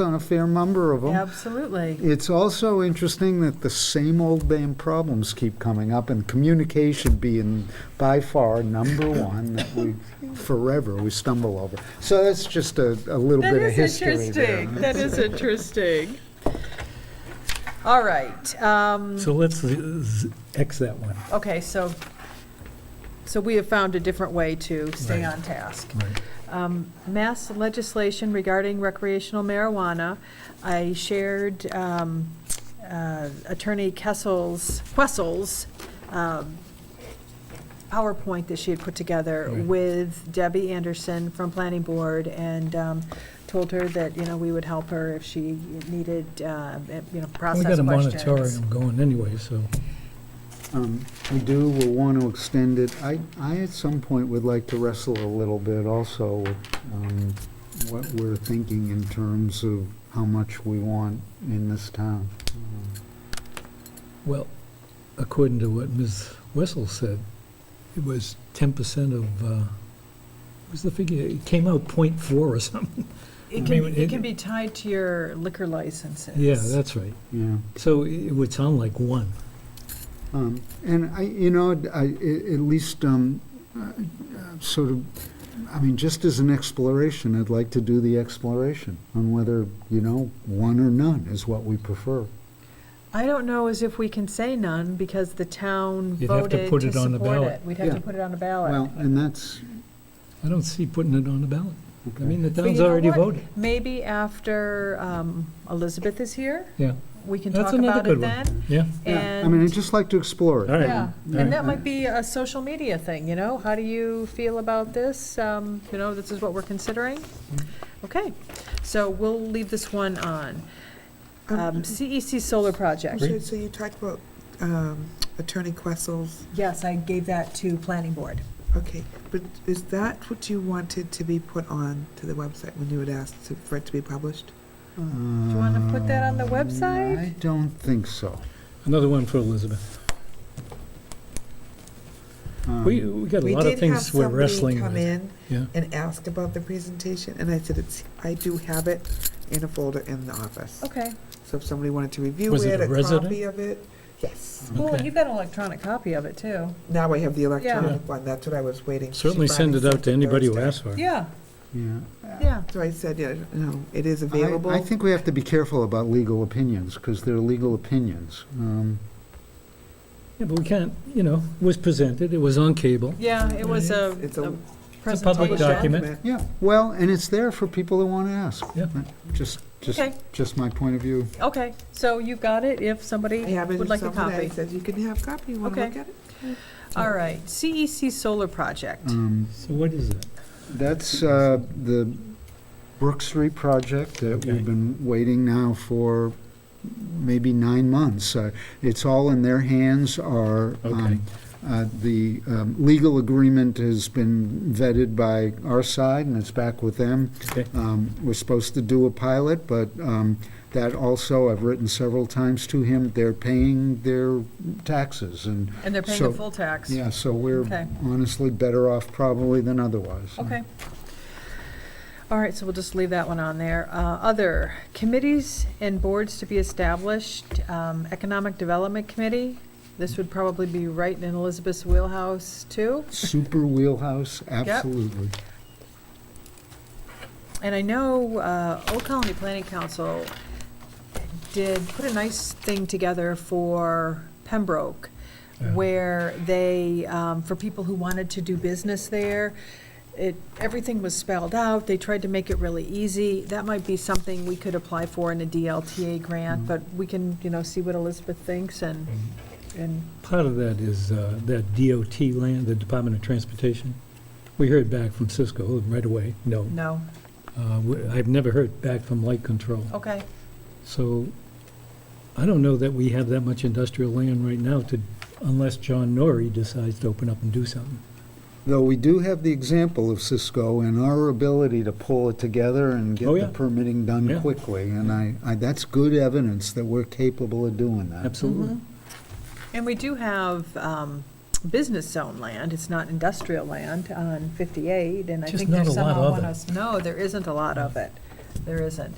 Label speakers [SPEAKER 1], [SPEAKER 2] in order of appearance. [SPEAKER 1] on a fair number of them.
[SPEAKER 2] Absolutely.
[SPEAKER 1] It's also interesting that the same old damn problems keep coming up, and communication being by far number one that we forever we stumble over. So that's just a, a little
[SPEAKER 2] That
[SPEAKER 1] bit of
[SPEAKER 2] is
[SPEAKER 1] history there.
[SPEAKER 2] interesting. That is interesting. All right. um,
[SPEAKER 3] So let's z- z- X that one.
[SPEAKER 2] Okay, so, so we have found a different way to stay
[SPEAKER 3] Right.
[SPEAKER 2] on task.
[SPEAKER 3] Right.
[SPEAKER 2] Um, Mass legislation regarding recreational marijuana. I shared um, uh, Attorney Kessel's, Wessel's um, PowerPoint that she had put together
[SPEAKER 3] Right.
[SPEAKER 2] with Debbie Anderson from Planning Board and um, told her that, you know, we would help her if she needed, uh, you know,
[SPEAKER 3] We
[SPEAKER 2] process
[SPEAKER 3] got a
[SPEAKER 2] questions.
[SPEAKER 3] moratorium going anyway, so
[SPEAKER 1] Um, We do, we'll want to extend it. I, I at some point would like to wrestle a little bit also with um, what we're thinking in terms of how much we want in this town.
[SPEAKER 2] Mm-hmm.
[SPEAKER 3] Well, according to what Ms. Wessel said, it was ten percent of, uh, what was the figure? It came out point four or something.
[SPEAKER 2] It
[SPEAKER 3] I
[SPEAKER 2] can,
[SPEAKER 3] mean,
[SPEAKER 2] it
[SPEAKER 3] it-
[SPEAKER 2] can be tied to your liquor licenses.
[SPEAKER 3] Yeah, that's right.
[SPEAKER 1] Yeah.
[SPEAKER 3] So it would sound like one.
[SPEAKER 1] Um, And I, you know, I, a- at least, um, uh, sort of, I mean, just as an exploration, I'd like to do the exploration on whether, you know, one or none is what we prefer.
[SPEAKER 2] I don't know as if we can say none because the town
[SPEAKER 3] You'd have to
[SPEAKER 2] voted
[SPEAKER 3] put
[SPEAKER 2] to
[SPEAKER 3] it on the
[SPEAKER 2] support
[SPEAKER 3] ballot.
[SPEAKER 2] it. We'd have
[SPEAKER 1] Yeah.
[SPEAKER 2] to put it on a ballot.
[SPEAKER 1] Well, and that's,
[SPEAKER 3] I don't see putting it on the ballot. I
[SPEAKER 1] okay.
[SPEAKER 3] mean, the
[SPEAKER 2] But you
[SPEAKER 3] town's
[SPEAKER 2] know
[SPEAKER 3] already
[SPEAKER 2] what?
[SPEAKER 3] voted.
[SPEAKER 2] Maybe after um, Elizabeth is here,
[SPEAKER 3] Yeah,
[SPEAKER 2] we can
[SPEAKER 3] That's
[SPEAKER 2] talk
[SPEAKER 3] another
[SPEAKER 2] about it
[SPEAKER 3] good
[SPEAKER 2] then.
[SPEAKER 3] one. yeah.
[SPEAKER 1] Yeah, I mean, I'd
[SPEAKER 2] And,
[SPEAKER 1] just like to explore it.
[SPEAKER 3] All right.
[SPEAKER 2] yeah,
[SPEAKER 3] All
[SPEAKER 2] and that
[SPEAKER 1] right.
[SPEAKER 2] might be a social media thing, you know? How do you feel about this? Um, You know, this is what we're considering?
[SPEAKER 3] Mm-hmm.
[SPEAKER 2] Okay, so we'll leave this one on. Um, CEC Solar Project.
[SPEAKER 3] Great.
[SPEAKER 4] So so you talked about um, Attorney Quessel's,
[SPEAKER 2] Yes, I gave that to Planning Board.
[SPEAKER 4] okay, but is that what you wanted to be put on to the website when you had asked to- for it to be published?
[SPEAKER 1] Do
[SPEAKER 2] you wanna put that on the website?
[SPEAKER 1] Uh, I don't think so.
[SPEAKER 3] Another one for Elizabeth.
[SPEAKER 1] Um,
[SPEAKER 3] We, we got a
[SPEAKER 4] We
[SPEAKER 3] lot of
[SPEAKER 4] did have
[SPEAKER 3] things we're
[SPEAKER 4] somebody
[SPEAKER 3] wrestling
[SPEAKER 4] come
[SPEAKER 3] with.
[SPEAKER 4] in
[SPEAKER 3] Yeah,
[SPEAKER 4] and ask about the presentation, and I said, it's, I do have it in a folder in the office.
[SPEAKER 2] Okay.
[SPEAKER 4] So if somebody wanted to review
[SPEAKER 3] Was
[SPEAKER 4] it,
[SPEAKER 3] it a
[SPEAKER 4] a
[SPEAKER 3] resident?
[SPEAKER 4] copy of it, yes.
[SPEAKER 2] Well,
[SPEAKER 3] Okay.
[SPEAKER 2] you've got an electronic copy of it, too.
[SPEAKER 4] Now I have the electronic
[SPEAKER 3] Yeah.
[SPEAKER 4] one, that's what I was waiting. She
[SPEAKER 3] certainly
[SPEAKER 4] finally
[SPEAKER 3] send it out
[SPEAKER 4] sent
[SPEAKER 3] to anybody who
[SPEAKER 4] Thursday.
[SPEAKER 3] asks for it.
[SPEAKER 2] Yeah,
[SPEAKER 1] Yeah.
[SPEAKER 2] yeah.
[SPEAKER 4] So I said, yeah, no, it is
[SPEAKER 1] I-
[SPEAKER 4] available.
[SPEAKER 1] I think we have to be careful about legal opinions, because they're legal opinions. Um,
[SPEAKER 3] Yeah, but we can't, you know, it was presented, it was on cable.
[SPEAKER 2] Yeah, it was a
[SPEAKER 4] It's
[SPEAKER 2] a
[SPEAKER 4] a
[SPEAKER 3] It's a public
[SPEAKER 2] presentation.
[SPEAKER 3] document.
[SPEAKER 1] Yeah, well, and it's there for people that want to ask.
[SPEAKER 3] Yeah.
[SPEAKER 1] Just, just,
[SPEAKER 2] Okay.
[SPEAKER 1] just my point of view.
[SPEAKER 2] Okay, so you've got it if somebody
[SPEAKER 4] I have it in
[SPEAKER 2] would like a
[SPEAKER 4] some way.
[SPEAKER 2] copy.
[SPEAKER 4] It says you can have copy, you want to
[SPEAKER 2] Okay.
[SPEAKER 4] look at it?
[SPEAKER 2] All right, CEC Solar Project.
[SPEAKER 1] Um,
[SPEAKER 3] So what is it?
[SPEAKER 1] That's uh, the Brooks Street project that
[SPEAKER 3] Okay.
[SPEAKER 1] we've been waiting now for maybe nine months. Uh, It's all in their hands, our,
[SPEAKER 3] Okay.
[SPEAKER 1] um, uh, the um, legal agreement has been vetted by our side, and it's back with them.
[SPEAKER 3] Okay.
[SPEAKER 1] Um, We're supposed to do a pilot, but um, that also, I've written several times to him, they're paying their taxes, and,
[SPEAKER 2] And they're paying the
[SPEAKER 1] So-
[SPEAKER 2] full tax.
[SPEAKER 1] yeah, so we're
[SPEAKER 2] Okay.
[SPEAKER 1] honestly better off probably than otherwise.
[SPEAKER 2] Okay. All right, so we'll just leave that one on there. Uh, Other, committees and boards to be established, um, Economic Development Committee. This would probably be right in Elizabeth's wheelhouse, too.
[SPEAKER 1] Super wheelhouse, absolutely.
[SPEAKER 2] And I know uh, Old Colony Planning Council did put a nice thing together for Pembroke,
[SPEAKER 3] Yeah.
[SPEAKER 2] where they, um, for people who wanted to do business there, it, everything was spelled out, they tried to make it really easy. That might be something we could apply for in a DLTA grant, but we can, you know, see what Elizabeth thinks and, and,
[SPEAKER 3] Part of that is uh, that DOT land, the Department of Transportation. We heard back from Cisco right away, no.
[SPEAKER 2] no,
[SPEAKER 3] Uh, we- I've never heard back from Light Control.
[SPEAKER 2] okay.
[SPEAKER 3] So I don't know that we have that much industrial land right now to, unless John Norrie decides to open up and do something.
[SPEAKER 1] Though we do have the example of Cisco and our ability to pull it together and
[SPEAKER 3] Oh,
[SPEAKER 1] get
[SPEAKER 3] yeah.
[SPEAKER 1] the permitting done
[SPEAKER 3] Yeah.
[SPEAKER 1] quickly. And I, I, that's good evidence that we're capable of doing that.
[SPEAKER 3] Absolutely.
[SPEAKER 2] And we do have um, business zone land, it's not industrial land on 58, and I
[SPEAKER 3] Just
[SPEAKER 2] think
[SPEAKER 3] not
[SPEAKER 2] there's
[SPEAKER 3] a lot
[SPEAKER 2] some on
[SPEAKER 3] of it.
[SPEAKER 2] 107. No, there isn't a lot of it, there isn't.